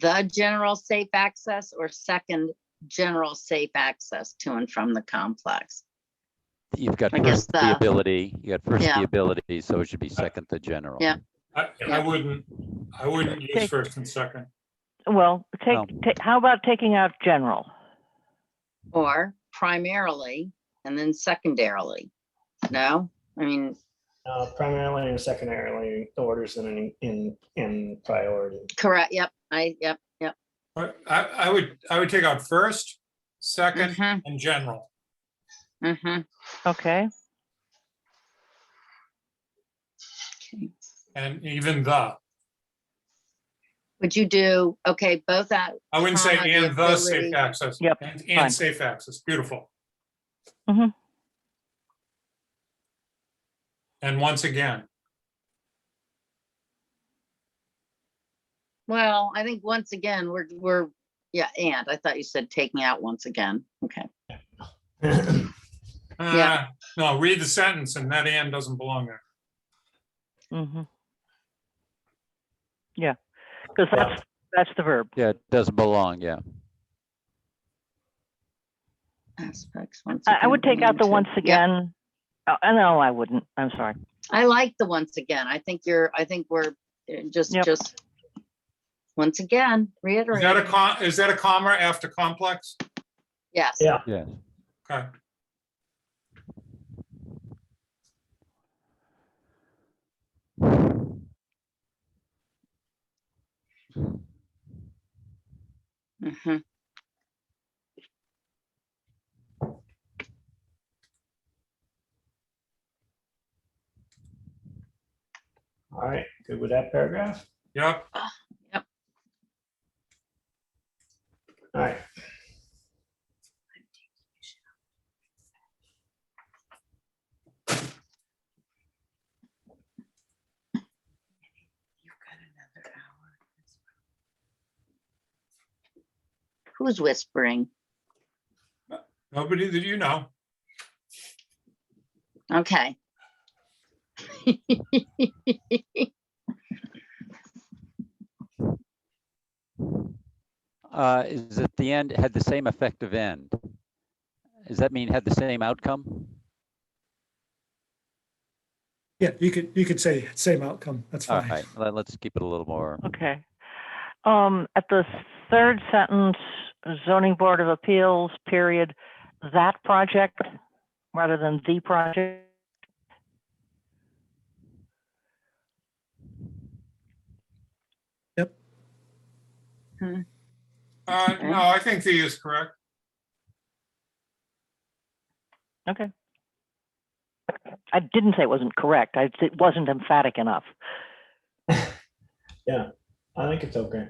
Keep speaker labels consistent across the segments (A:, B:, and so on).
A: the general safe access or second general safe access to and from the complex?
B: You've got
A: I guess
B: first the
A: the-
B: ability, you got first
A: Yeah.
B: the ability, so it should be second the general.
A: Yeah.
C: I, I wouldn't, I wouldn't use
D: Okay.
C: first and second.
D: Well,
B: No.
D: take, ta- how about taking out general?
A: Or primarily and then secondarily? No, I mean,
E: Uh, primarily and secondarily, the orders in, an- in, in priority.
A: correct, yep, I, yep, yep.
C: But I, I would, I would take out first, second,
A: mhm,
C: and general.
A: mhm. Okay.
D: Okay,
C: And even the,
A: Would you do, okay, both that,
C: I wouldn't say
A: Comma, the
C: and the safe
A: ability.
C: access.
D: Yep,
C: And,
D: fine.
C: and safe access, beautiful.
A: Mm-hmm.
D: Mhm.
C: And once again,
A: well, I think once again, we're, we're, yeah, and I thought you said taking out once again. Okay,
C: uh, no, read the sentence and that and doesn't belong there.
D: hmm Yeah, because
E: Yeah.
D: that's, that's the verb.
B: Yeah, it doesn't belong, yeah.
A: aspects. once
D: I, I
A: again,
D: would take out the
A: belong
D: once
A: to- Yep.
D: again. Uh, no, I wouldn't. I'm sorry.
A: I like the once again. I think you're, I think we're uh, just,
D: Yep.
A: just. Once again,
C: Is that a
A: reiterate,
C: com, is that a comma after complex?
A: yes.
E: Yeah.
B: Yeah.
C: Okay,
A: Mhm.
E: All right, good with that paragraph?
C: yep,
E: All right.
A: Who's whispering?
C: nobody that you know.
A: Okay.
B: Uh, is at the end, had the same effective end? Does that mean had the same outcome?
F: Yeah, you could, you could say same outcome. That's
B: All
F: fine.
B: right, let- let's keep it a little more.
D: Okay. Um, at the third sentence, zoning board of appeals, period, that project rather than the project.
C: Uh,
A: Okay.
C: no, I think the is correct.
D: Okay. I didn't say it wasn't correct. I, it wasn't emphatic enough.
E: I think it's okay.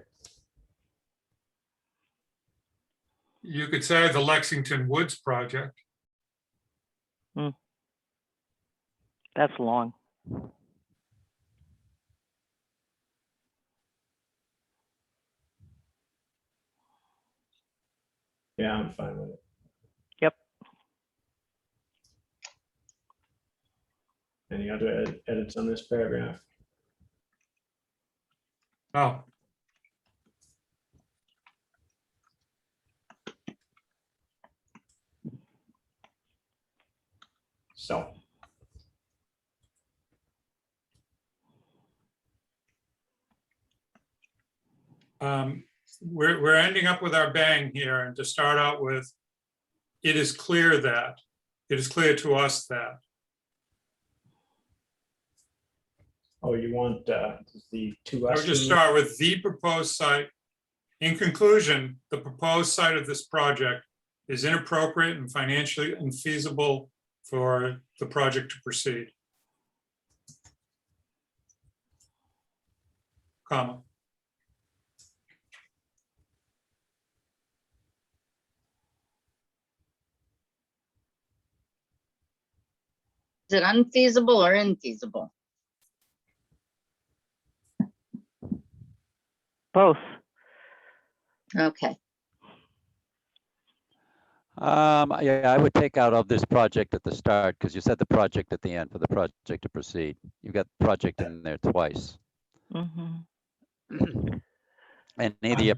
C: You could say the Lexington Woods project.
D: That's long.
E: Yeah, I'm fine with it.
D: Yep.
E: Any other ed- edits on this paragraph?
C: Oh,
E: So.
C: um, we're, we're ending up with our bang here and to start out with, it is clear that, it is clear to us that,
E: Oh, you want uh, the two.
C: I
E: us
C: would just
E: in-
C: start with the proposed site. In conclusion, the proposed site of this project is inappropriate and financially infeasible for the project to proceed. Comma,
A: Is it unfeasible or infeasible?
D: Both.
A: Okay,
B: Um, yeah, I would take out of this project at the start, because you said the project at the end for the project to proceed. You've got
D: Mm-hmm.
B: project in there twice.
D: hmm
B: And any of the